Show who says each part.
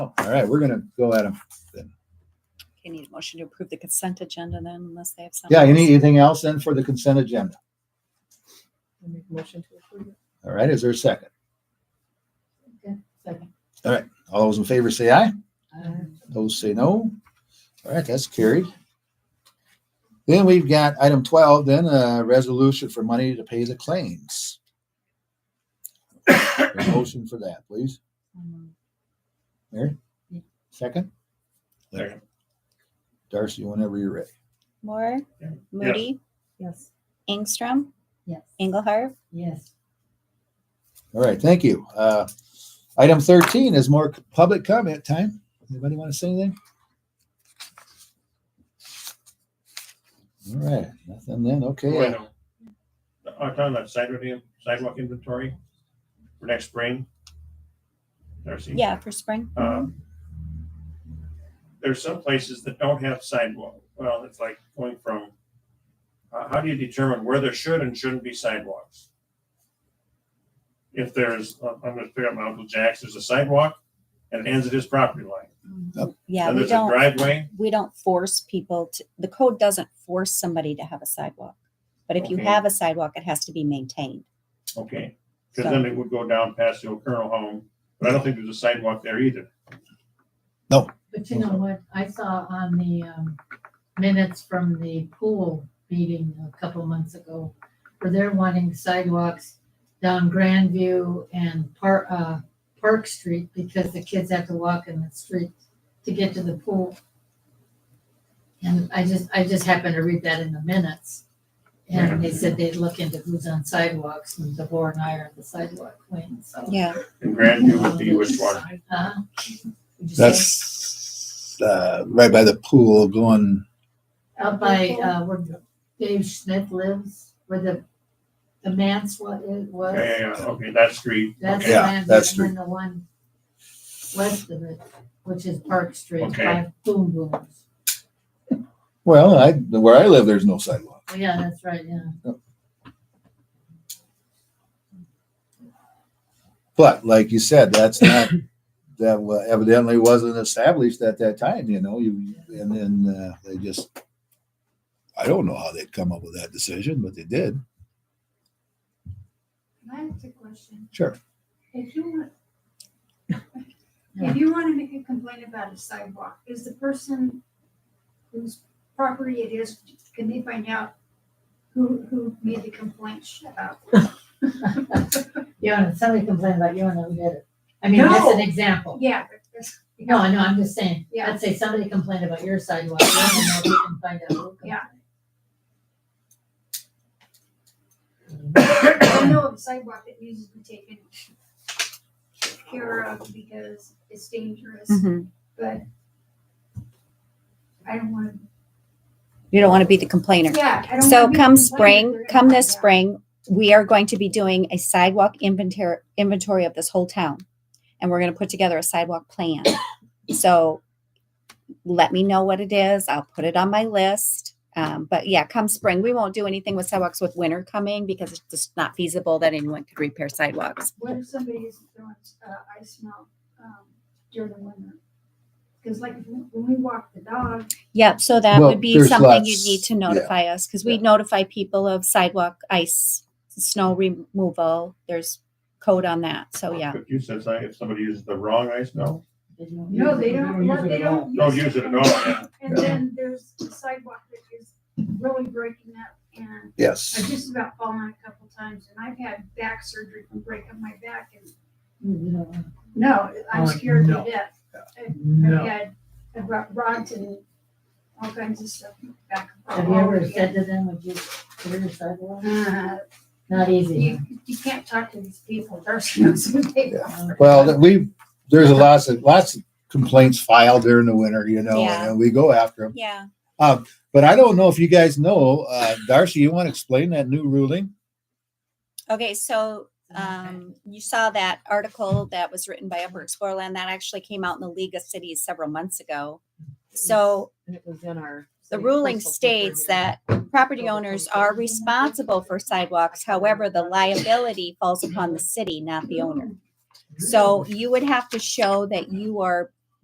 Speaker 1: All right, we're gonna go at them.
Speaker 2: Okay, need a motion to approve the consent agenda then unless they have something.
Speaker 1: Yeah, any-
Speaker 2: else.
Speaker 1: anything else then for the consent agenda?
Speaker 3: I make a motion to approve it.
Speaker 1: All right, is there a second?
Speaker 3: Second.
Speaker 1: All those in favor say aye.
Speaker 3: Aye.
Speaker 2: Uh,
Speaker 1: Those say no. All right, that's carried. Then we've got item twelve, then a resolution for money to pay the claims. A Motion for that, please. Mary?
Speaker 3: Yeah.
Speaker 1: Second?
Speaker 4: Second.
Speaker 1: Darcy, whenever you're ready.
Speaker 2: Moore,
Speaker 4: Yeah.
Speaker 2: Moody,
Speaker 3: Yes.
Speaker 2: Ingstrom,
Speaker 3: Yes.
Speaker 2: Engelhardt.
Speaker 3: Yes.
Speaker 1: All right, thank you. Uh, item thirteen is more public comment time. Anybody want to say anything? All right, nothing then,
Speaker 4: Oh, I
Speaker 1: okay.
Speaker 4: know. I'm talking about sidewalk, in- sidewalk inventory for next spring. Darcy.
Speaker 2: Yeah, for spring.
Speaker 4: Um, There's some places that don't have sidewalk. Well, it's like going from, how, how do you determine where there should and shouldn't be sidewalks? If there's, I'm gonna pick up my Uncle Jack's, there's a sidewalk and it ends at his property line.
Speaker 2: Yeah,
Speaker 4: And
Speaker 2: we
Speaker 4: there's a
Speaker 2: don't,
Speaker 4: driveway.
Speaker 2: we don't force people to, the code doesn't force somebody to have a sidewalk. But if you
Speaker 4: Okay.
Speaker 2: have a sidewalk, it has to be maintained.
Speaker 4: Okay, because then it would go down past the old Colonel home, but I don't think there's a sidewalk there either.
Speaker 5: But you know what, I saw on the um, minutes from the pool meeting a couple months ago, where they're wanting sidewalks down Grandview and Park, uh, Park Street, because the kids have to walk in the street to get to the pool. And I just, I just happened to read that in the minutes. And they said they'd look into who's on sidewalks, and DeVore and I are the sidewalk queen, so.
Speaker 2: Yeah,
Speaker 4: And Grandview would be which one?
Speaker 5: uh, would you say
Speaker 1: That's, uh, right by the pool going,
Speaker 5: Out by, uh, where Dave Smith lives, where the, the manse wa- it was.
Speaker 4: Yeah, yeah, yeah, okay, that street.
Speaker 5: That's
Speaker 4: Okay.
Speaker 1: Yeah,
Speaker 5: land,
Speaker 1: that's
Speaker 5: and then the one west of it, which is Park Street,
Speaker 4: Okay.
Speaker 5: by Boom Booms.
Speaker 1: well, I, where I live, there's no sidewalk.
Speaker 5: Oh, Yeah, that's right, yeah.
Speaker 1: But like you said, that's not, that wa- evidently wasn't established at that time, you know, you, and then, uh, they just, I don't know how they'd come up with that decision, but they did.
Speaker 6: I have a question.
Speaker 1: Sure.
Speaker 6: If you want, if you want to make a complaint about a sidewalk, is the person whose property it is, can they find out who, who made the complaint about?
Speaker 5: You know, if somebody complained about you and I did it. I mean, that's an example.
Speaker 6: Yeah, but that's-
Speaker 5: No, I know, I'm just saying,
Speaker 6: Yeah.
Speaker 5: let's say somebody complained about your sidewalk, you don't know if you can find out who complained.
Speaker 6: I know of a sidewalk that needs to be taken care of because it's dangerous,
Speaker 2: Mhm.
Speaker 6: but I don't want
Speaker 2: you don't want to be the complainer.
Speaker 6: to, yeah, I don't. wanna
Speaker 2: So come
Speaker 6: be the complainant. They're
Speaker 2: spring,
Speaker 6: gonna
Speaker 2: come this
Speaker 6: find out.
Speaker 2: spring, we are going to be doing a sidewalk inventory, inventory of this whole town. And we're gonna put together a sidewalk plan. So let me know what it is. I'll put it on my list. Um, but yeah, come spring, we won't do anything with sidewalks with winter coming because it's just not feasible that anyone could repair sidewalks.
Speaker 6: What if somebody is throwing uh, ice melt um, during the winter? Because like if we- when we walk the dog,
Speaker 2: Yep, so that
Speaker 1: Well,
Speaker 2: would be
Speaker 1: there's
Speaker 2: something you'd need
Speaker 1: lots-
Speaker 2: to
Speaker 1: yeah.
Speaker 2: notify us, because we
Speaker 1: Yeah.
Speaker 2: notify people of sidewalk ice, snow removal. There's code on that, so yeah.
Speaker 4: But you said something, if somebody uses the wrong ice melt,
Speaker 6: no, they don't. what- They don't.
Speaker 4: don't use it at all.
Speaker 6: And then there's the sidewalk that is really breaking up, and I
Speaker 1: Yes.
Speaker 6: just about fallen a couple times, and I've had back surgery from breaking my back, and no, I'm
Speaker 3: Oh,
Speaker 6: scared
Speaker 3: no.
Speaker 6: to death. I've had I've got rods and all kinds of stuff back.
Speaker 5: Have you ever said to them, would you clear your sidewalk?
Speaker 6: Uh,
Speaker 5: Not easy.
Speaker 6: You, you can't talk to these people, they're so big.
Speaker 1: Well, that we, there's a lots of, lots of complaints filed during the winter, you know, and we go after them.
Speaker 2: Yeah.
Speaker 1: But I don't know if you guys know, uh, Darcy, you want to explain that new ruling?
Speaker 2: Okay, so um, you saw that article that was written by Upper Explorerland that actually came out in the League of Cities several months ago. So
Speaker 3: And it was in our.
Speaker 2: the
Speaker 3: city
Speaker 2: ruling
Speaker 3: postal paper
Speaker 2: states
Speaker 3: here.
Speaker 2: that property owners are responsible for sidewalks. However, the Mm-hmm. liability falls upon the city, not the owner. So you would have to show that you are